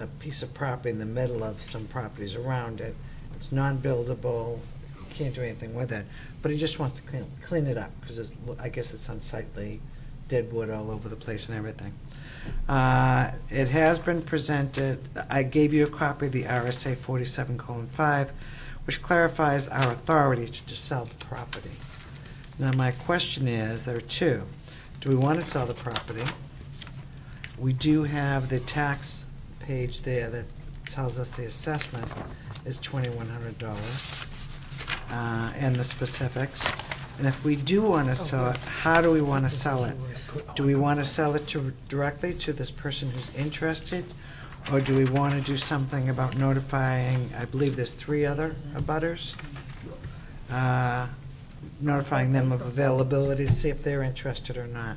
a piece of property in the middle of some properties around it. It's non-buildable, you can't do anything with it, but he just wants to clean, clean it up, because it's, I guess it's unsightly, dead wood all over the place and everything. Uh, It has been presented, I gave you a copy of the RSA forty-seven colon five, which clarifies our authority to to sell the property. Now, my question is, there are two. Do we want to sell the property? We do have the tax page there that tells us the assessment is twenty-one hundred dollars, uh, and the specifics. And if we do want to sell it, how do we want to sell it? Do we want to sell it to, directly to this person who's interested? Or do we want to do something about notifying, I believe there's three other abutters? uh, Notifying them of availability, see if they're interested or not.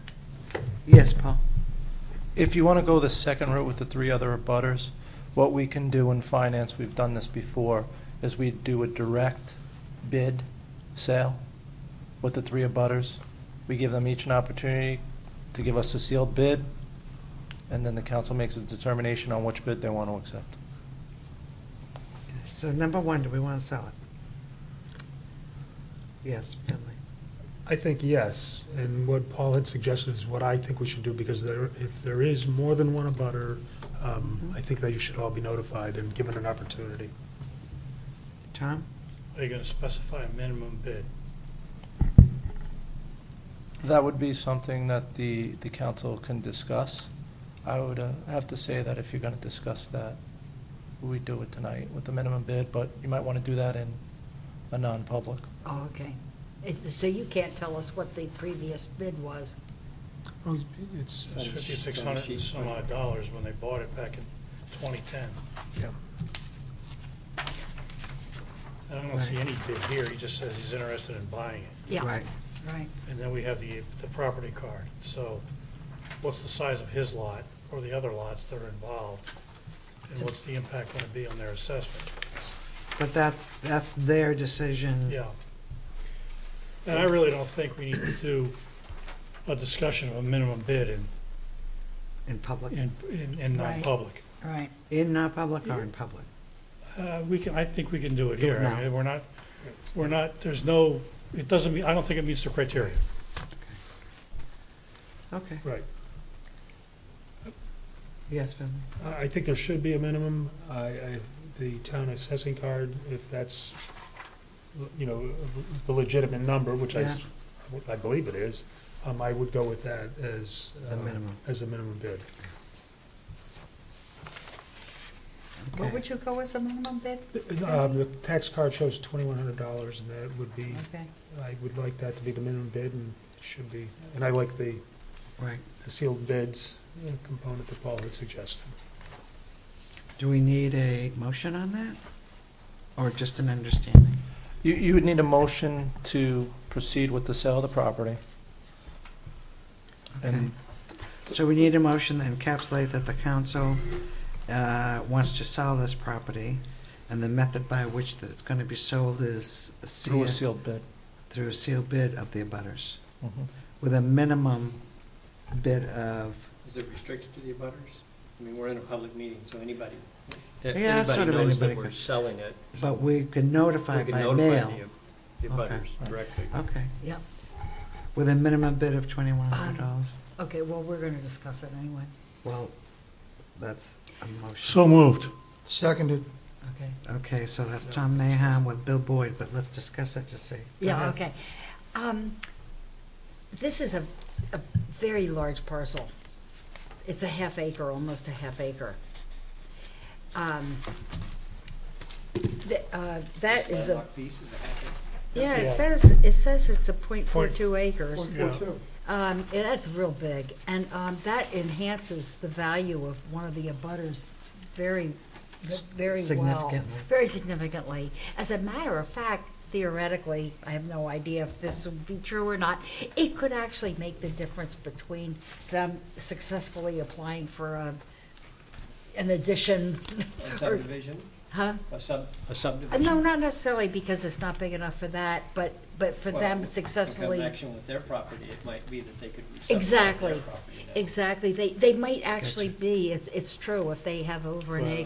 Yes, Paul? If you want to go the second route with the three other abutters, what we can do in finance, we've done this before, is we do a direct bid sale with the three abutters. We give them each an opportunity to give us a sealed bid, and then the council makes a determination on which bid they want to accept. So number one, do we want to sell it? Yes, Finley. I think yes, and what Paul had suggested is what I think we should do, because there, if there is more than one abutter, Mm-hmm. um, I think that you should all be notified and given an opportunity. Tom? Are you gonna specify a minimum bid? That would be something that the, the council can discuss. I would uh, have to say that if you're going to discuss that, we do it tonight with the minimum bid, but you might want to do that in a non-public. Oh, okay. It's, so you can't tell us what the previous bid was? Oh, it's, It's fifty-six hundred and some odd dollars when they bought it back in twenty-ten. yeah. And I don't see Right. any bid here, he just says he's interested in buying it. Yeah, Right. right. And then we have the, the property card, so what's the size of his lot or the other lots that are involved? And what's the impact gonna be on their assessment? But that's, that's their decision. Yeah. And I really don't think we need to do a discussion of a minimum bid in, In public, in, in- in Right. non-public. Right. in not public or in public? Uh, We can, I think we can do it here. now. I mean, We're not, we're not, there's no, it doesn't, mean- I don't think it meets the criteria. Okay, Right. yes, Finley. I, I think there should be a minimum. I, I, the town assessing card, if that's, you know, the legitimate number, which I, s- I believe it is, um, I would go with that as. The uh, minimum. As a minimum bid. What Okay. would you go as a minimum bid? Um, the tax card shows twenty-one hundred dollars, and that would be, Okay. I would like that to be the minimum bid, and it should be, and I like the Right. the sealed bids uh, component that Paul had suggested. Do we need a motion on that? Or just an understanding? You, you would need a motion to proceed with the sale of the property. Okay. And So we need a motion that encapsulate that the council uh, wants to sell this property, and the method by which that it's going to be sold is through a sealed- sealed bid. through a sealed bid of the abutters, Mhm. with a minimum bid of, Is it restricted to the abutters? I mean, we're in a public meeting, so anybody. if Yeah, sort of Anybody knows anybody that we're could. selling it. but we can We notify can by notify mail. the the Okay. abutters directly. Okay, Yep. with a minimum bid of $2,100. Okay, well, we're gonna discuss it anyway. Well, that's a motion. So moved. Seconded. Okay. Okay, so that's Tom Maham with Bill Boyd, but let's discuss it to see. Go Yeah, ahead. okay. Um, This is a, a very large parcel. It's a half acre, almost a half acre. Um, th- uh, That is a, Landlocked piece is a half acre. yeah, it Yeah. says, it says it's a point four Point- two acres. Yeah. Um, yeah, that's real big, and, um, that enhances the value of one of the abutters very, very well. Significantly. Very significantly. As a matter of fact, theoretically, I have no idea if this would be true or not, it could actually make the difference between them successfully applying for, um, uh, an addition, A Subdivision? Huh? a sub, a Uh, subdivision. No, not necessarily because it's not big enough for that, but, but for Well, them In successfully. connection with their property, it might be that they could. subdivide their Exactly. property now. Exactly, they, they might actually be, it's, it's true, if they have over an Well, acre.